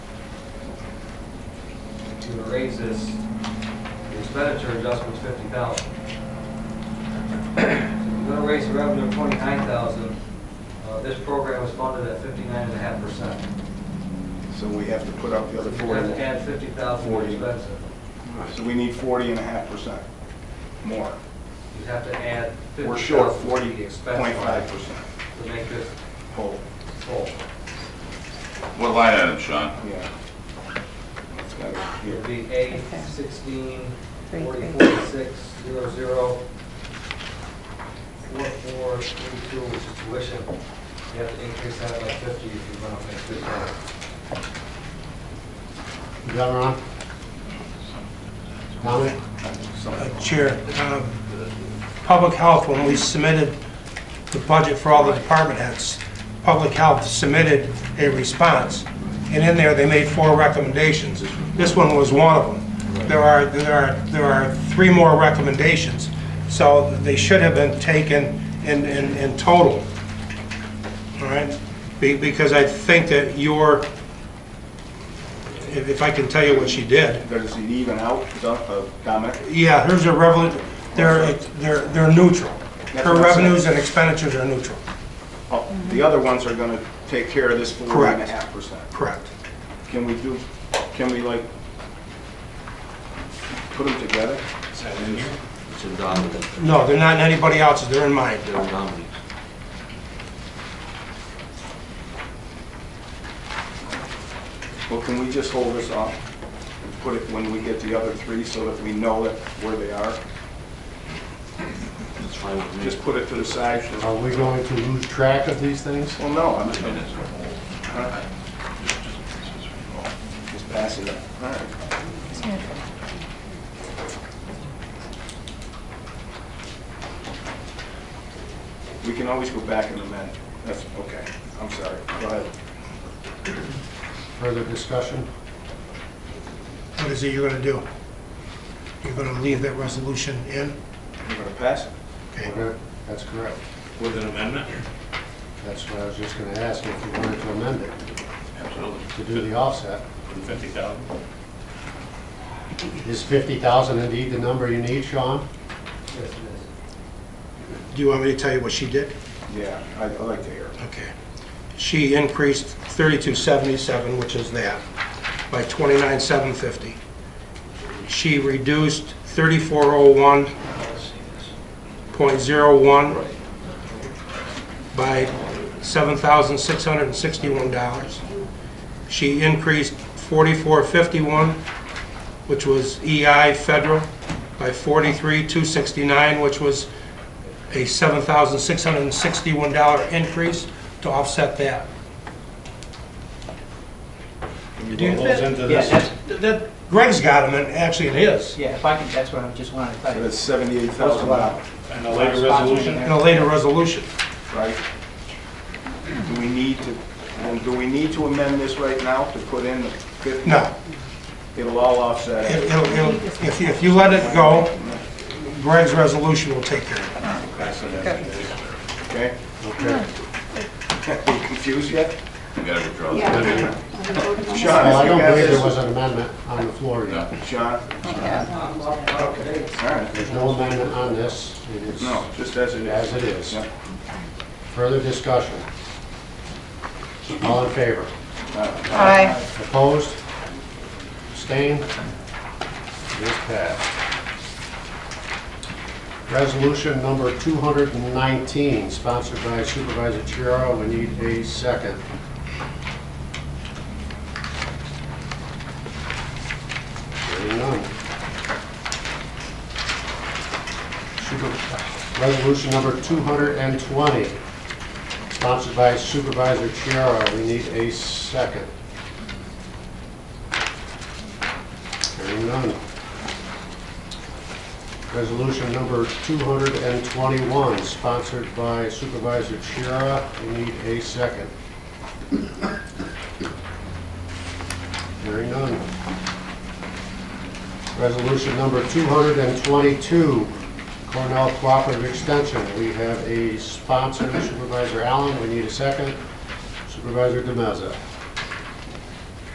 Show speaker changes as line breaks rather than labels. to raise this the expenditure adjustment's fifty thousand. If you're gonna raise the revenue twenty-nine thousand, uh, this program was funded at fifty-nine and a half percent.
So we have to put up the other
You have to
40.
add fifty thousand for
Forty.
expenses.
So we need 40 and a half percent more.
You have to add
We're
fifty
short
thousand for the expense line
40.5 percent
to make this
whole,
whole.
What line item, Sean?
yeah. That's gotta be
It'd
here.
be A
Okay.
sixteen,
Three,
forty,
three.
forty-six, zero, zero, four, four, three, two, which is tuition. You have to increase that by fifty if you're gonna make this happen.
Is that Ron? Comment?
Uh, Chair, um, Public Health, when we submitted the budget for all the department heads, Public Health submitted a response, and in there, they made four recommendations. This one was one of them. There are, there are, there are three more recommendations, so they should have been taken in, in, in total. All right? Be- Because I think that your, if if I can tell you what she did,
Does it even out, Doug, Dominic?
yeah, here's a revenue, they're, they're, they're neutral.
That's what
Her
I'm saying.
revenues and expenditures are neutral,
Oh, The other ones are gonna take care of this 40 and a
Correct.
half percent.
correct.
Can we do, can we like, put them together?
It's in Dominic,
No, they're not in anybody else's, they're in mine.
they're in Dominic.
Well, can we just hold this off and put it when we get the other three so that we know that where they are?
It's fine with me.
Just put it to the side. so-
Are we going to lose track of these things?
Well, no, I'm just
Just a
gonna
minute.
Alright. just pass it up. All right. We can always go back and amend. That's, okay, I'm sorry. Go ahead.
Further discussion?
What is it you're gonna do? You're gonna leave that resolution in?
We're gonna pass it.
Okay.
Okay, That's correct.
With an amendment?
That's what I was just going to ask, if you wanted to amend it,
Absolutely.
to do the offset.
Fifty thousand?
Is 50,000 indeed the number you need, Sean?
Yes, it
Do you want me to tell you what she did?
Yeah, I- I'd like to hear. it.
Okay. She increased 3277, which is that, by 29750. She reduced 3401.01 by $7,661. She increased 4451, which was EI federal, by 43,269, which was a $7,661 increase to offset that.
Yeah, that's, that,
Greg's got them, and actually it is,
yeah, if I can, that's what I just wanted to
So
clarify.
That's seventy-eight thousand dollars,
And a later resolution?
in a later resolution.
right? Do we need to, and do we need to amend this right now to put in the fifty?
No,
It'll all offset. it.
it- it'll- it'll- if you- if you let it go, Greg's resolution will take care of it.
Okay?
Okay.
Are you confused yet?
You gotta withdraw.
Yeah.
that.
Sean,
Well, I
if you
don't
got
believe there
this.
was an amendment on the floor yet.
Sean,
is.
all right.
There's no amendment on this. It is
No, just as it is.
As it is.
Yeah.
Further discussion? All in favor?
Aye.
Opposed? Abstained? It is passed. Resolution number 219, sponsored by Supervisor Chiara. We need a second. Hearing none. Super- Resolution number 220, sponsored by Supervisor Chiara. We need a second. Hearing none. Resolution number 221, sponsored by Supervisor Chiara. We need a second. Hearing none. Resolution number 222, Cornell Cooperative Extension. We have a sponsor, Supervisor Allen. We need a second. Supervisor DeMaza.